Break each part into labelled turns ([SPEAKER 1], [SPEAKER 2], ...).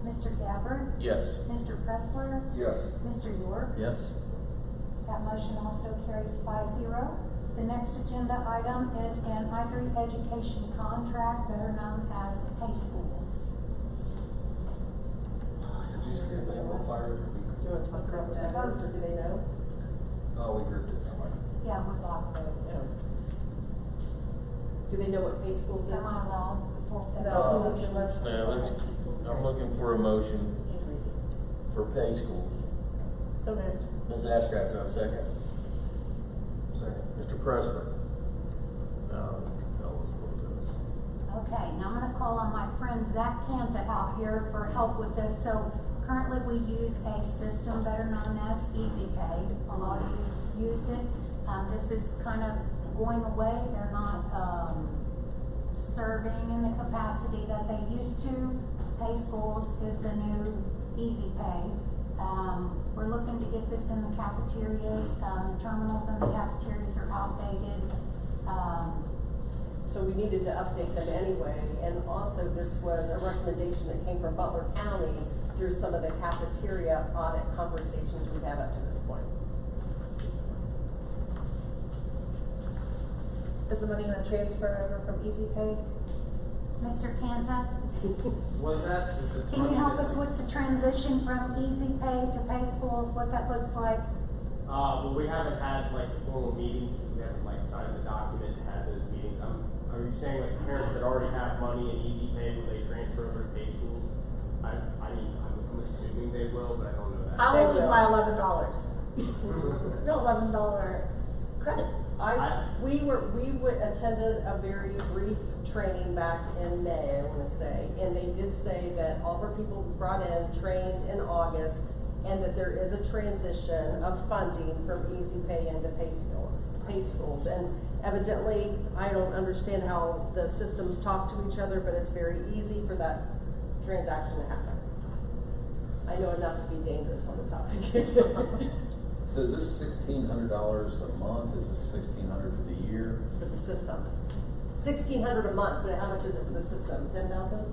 [SPEAKER 1] Mr. Gabbard?
[SPEAKER 2] Yes.
[SPEAKER 1] Mr. Pressler?
[SPEAKER 2] Yes.
[SPEAKER 1] Mr. York?
[SPEAKER 2] Yes.
[SPEAKER 1] That motion also carries five zero. The next agenda item is an I-3 education contract, better known as pay schools.
[SPEAKER 2] Did you see a man on fire?
[SPEAKER 3] Do you want to talk about that first, or do they know?
[SPEAKER 2] Oh, we grouped it, never mind.
[SPEAKER 1] Yeah, we blocked those.
[SPEAKER 3] No. Do they know what pay schools is?
[SPEAKER 1] Am I allowed before that?
[SPEAKER 3] No, we need your motion.
[SPEAKER 4] Now, let's, I'm looking for a motion for pay schools.
[SPEAKER 3] So moved.
[SPEAKER 4] Ms. Ashcraft, do I have a second?
[SPEAKER 2] Second.
[SPEAKER 4] Mr. Pressler? No, you can tell us what
[SPEAKER 1] Okay, now I'm gonna call on my friend Zach Canta out here for help with this. So currently, we use a system better known as Easy Pay. A lot of you used it. Um, this is kind of going away. They're not, um, serving in the capacity that they used to. Pay schools is the new easy pay. Um, we're looking to get this in the cafeterias. Um, terminals in the cafeterias are outdated. Um,
[SPEAKER 3] So we needed to update them anyway, and also this was a recommendation that came from Butler County through some of the cafeteria audit conversations we've had up to this point.
[SPEAKER 5] Is the money gonna transfer over from Easy Pay?
[SPEAKER 1] Mr. Canta,
[SPEAKER 6] Was that? is the
[SPEAKER 1] Can you help
[SPEAKER 6] money
[SPEAKER 1] us with the transition from easy pay to pay schools, what that looks like?
[SPEAKER 6] that- Uh, well, we haven't had like the formal meetings, because we haven't like signed the document and had those meetings. I'm, are you saying like parents that already have money in easy pay, will they transfer over to pay schools? I, I mean, I'm, I'm assuming they will, but I don't know that.
[SPEAKER 5] I will lose my
[SPEAKER 3] will.
[SPEAKER 5] eleven dollars. No, eleven dollar credit.
[SPEAKER 3] I,
[SPEAKER 6] I-
[SPEAKER 3] we were, we would, attended a very brief training back in May, I wanna say, and they did say that all of our people brought in, trained in August, and that there is a transition of funding from easy pay into pay schools, pay schools, and evidently, I don't understand how the systems talk to each other, but it's very easy for that transaction to happen. I know enough to be dangerous on the topic.
[SPEAKER 4] So is this sixteen hundred dollars a month? Is this sixteen hundred for the year?
[SPEAKER 3] for the system. Sixteen hundred a month, but how much is it for the system? Ten thousand?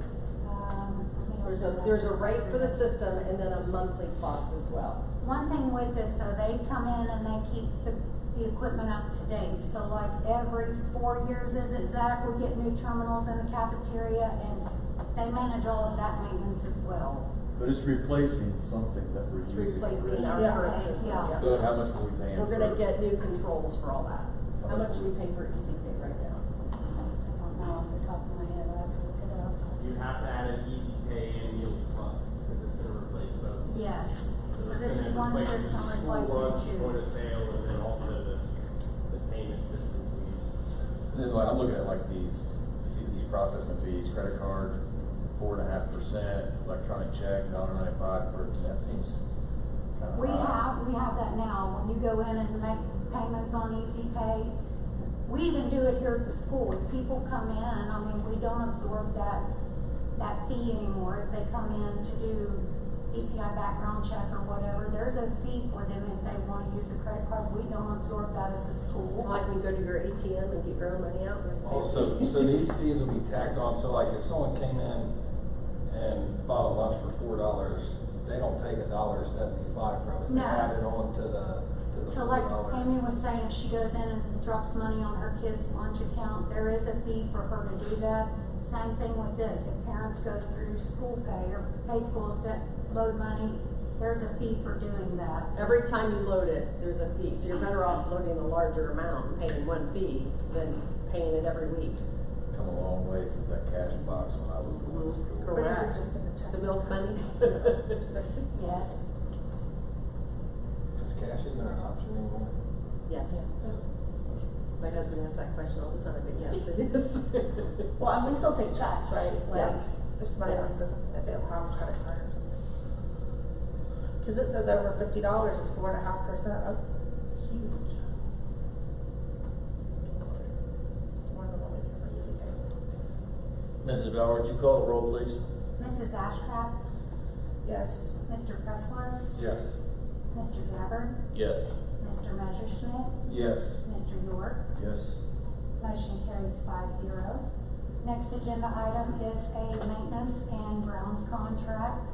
[SPEAKER 1] Um, I think
[SPEAKER 3] There's a, there's a rate for the system and then a monthly cost as well.
[SPEAKER 1] One thing with this, though, they come in and they keep the, the equipment up to date. So like every four years, is it Zach, we get new terminals in the cafeteria and they manage all of that maintenance as well.
[SPEAKER 7] But it's replacing something that we're
[SPEAKER 3] It's
[SPEAKER 7] using.
[SPEAKER 3] replacing
[SPEAKER 7] already.
[SPEAKER 3] our
[SPEAKER 5] Yeah.
[SPEAKER 3] current system,
[SPEAKER 1] Yeah.
[SPEAKER 3] yeah.
[SPEAKER 4] So how much were we paying for?
[SPEAKER 3] We're gonna get new controls for all that. How
[SPEAKER 4] How much?
[SPEAKER 3] much do we pay for Easy Pay right now?
[SPEAKER 1] I don't know off the top of my head, I have to look it up.
[SPEAKER 6] You'd have to add an easy pay and meals plus, since it's gonna replace both. systems.
[SPEAKER 1] Yes, so this
[SPEAKER 6] it's gonna
[SPEAKER 1] is one
[SPEAKER 6] replace
[SPEAKER 1] system
[SPEAKER 6] the school lunch,
[SPEAKER 1] replacing
[SPEAKER 6] Point of
[SPEAKER 1] two.
[SPEAKER 6] sale, and then also the, the payment systems we use.
[SPEAKER 4] And then like, I'm looking at like these, these processing fees, credit card, four and a half percent, electronic check, dollar ninety-five, per- that seems kind of high.
[SPEAKER 1] We have, we have that now, when you go in and make payments on Easy Pay, we even do it here at the school, if people come in, I mean, we don't absorb that, that fee anymore, if they come in to do ECI background check or whatever, there's a fee for them if they wanna use the credit card, we don't absorb that as a school.
[SPEAKER 3] Like you go to your ATM and get your own money out. and-
[SPEAKER 8] Also, so these fees will be tacked on, so like if someone came in and bought a lunch for four dollars, they don't take a dollar seventy-five from us, they
[SPEAKER 1] No.
[SPEAKER 8] add it on to the, to the
[SPEAKER 1] So
[SPEAKER 8] four
[SPEAKER 1] like
[SPEAKER 8] dollar.
[SPEAKER 1] Amy was saying, if she goes in and drops money on her kid's lunch account, there is a fee for her to do that. Same thing with this, if parents go through school pay or pay schools that load money, there's a fee for doing that.
[SPEAKER 3] Every time you load it, there's a fee, so you're better off loading a larger amount and paying one fee than paying it every week.
[SPEAKER 4] Come a long way since that cash box when I was going to school.
[SPEAKER 5] But if
[SPEAKER 3] Correct.
[SPEAKER 5] you're just gonna check.
[SPEAKER 3] The milk money.
[SPEAKER 1] Yes,
[SPEAKER 8] Is cash even an option anymore?
[SPEAKER 3] Yes. My husband asks that question all the time, but yes, it is.
[SPEAKER 5] Well, and we still take checks, right? Like,
[SPEAKER 3] Yes.
[SPEAKER 5] If somebody
[SPEAKER 3] Yes.
[SPEAKER 5] wants to, if they don't have a credit card or something. Cause it says over fifty dollars, it's four and a half percent, that's huge. It's more than what we do for Easy Pay.
[SPEAKER 4] Mrs. Bowers, would you call the roll, please?
[SPEAKER 1] Mrs. Ashcraft,
[SPEAKER 5] Yes,
[SPEAKER 1] Mr. Pressler,
[SPEAKER 2] Yes.
[SPEAKER 1] Mr. Gabbard,
[SPEAKER 4] Yes.
[SPEAKER 1] Mr. Messerschmidt,
[SPEAKER 2] Yes.
[SPEAKER 1] Mr. York.
[SPEAKER 7] Yes,
[SPEAKER 1] Motion carries five zero. Next agenda item is a maintenance and grounds contract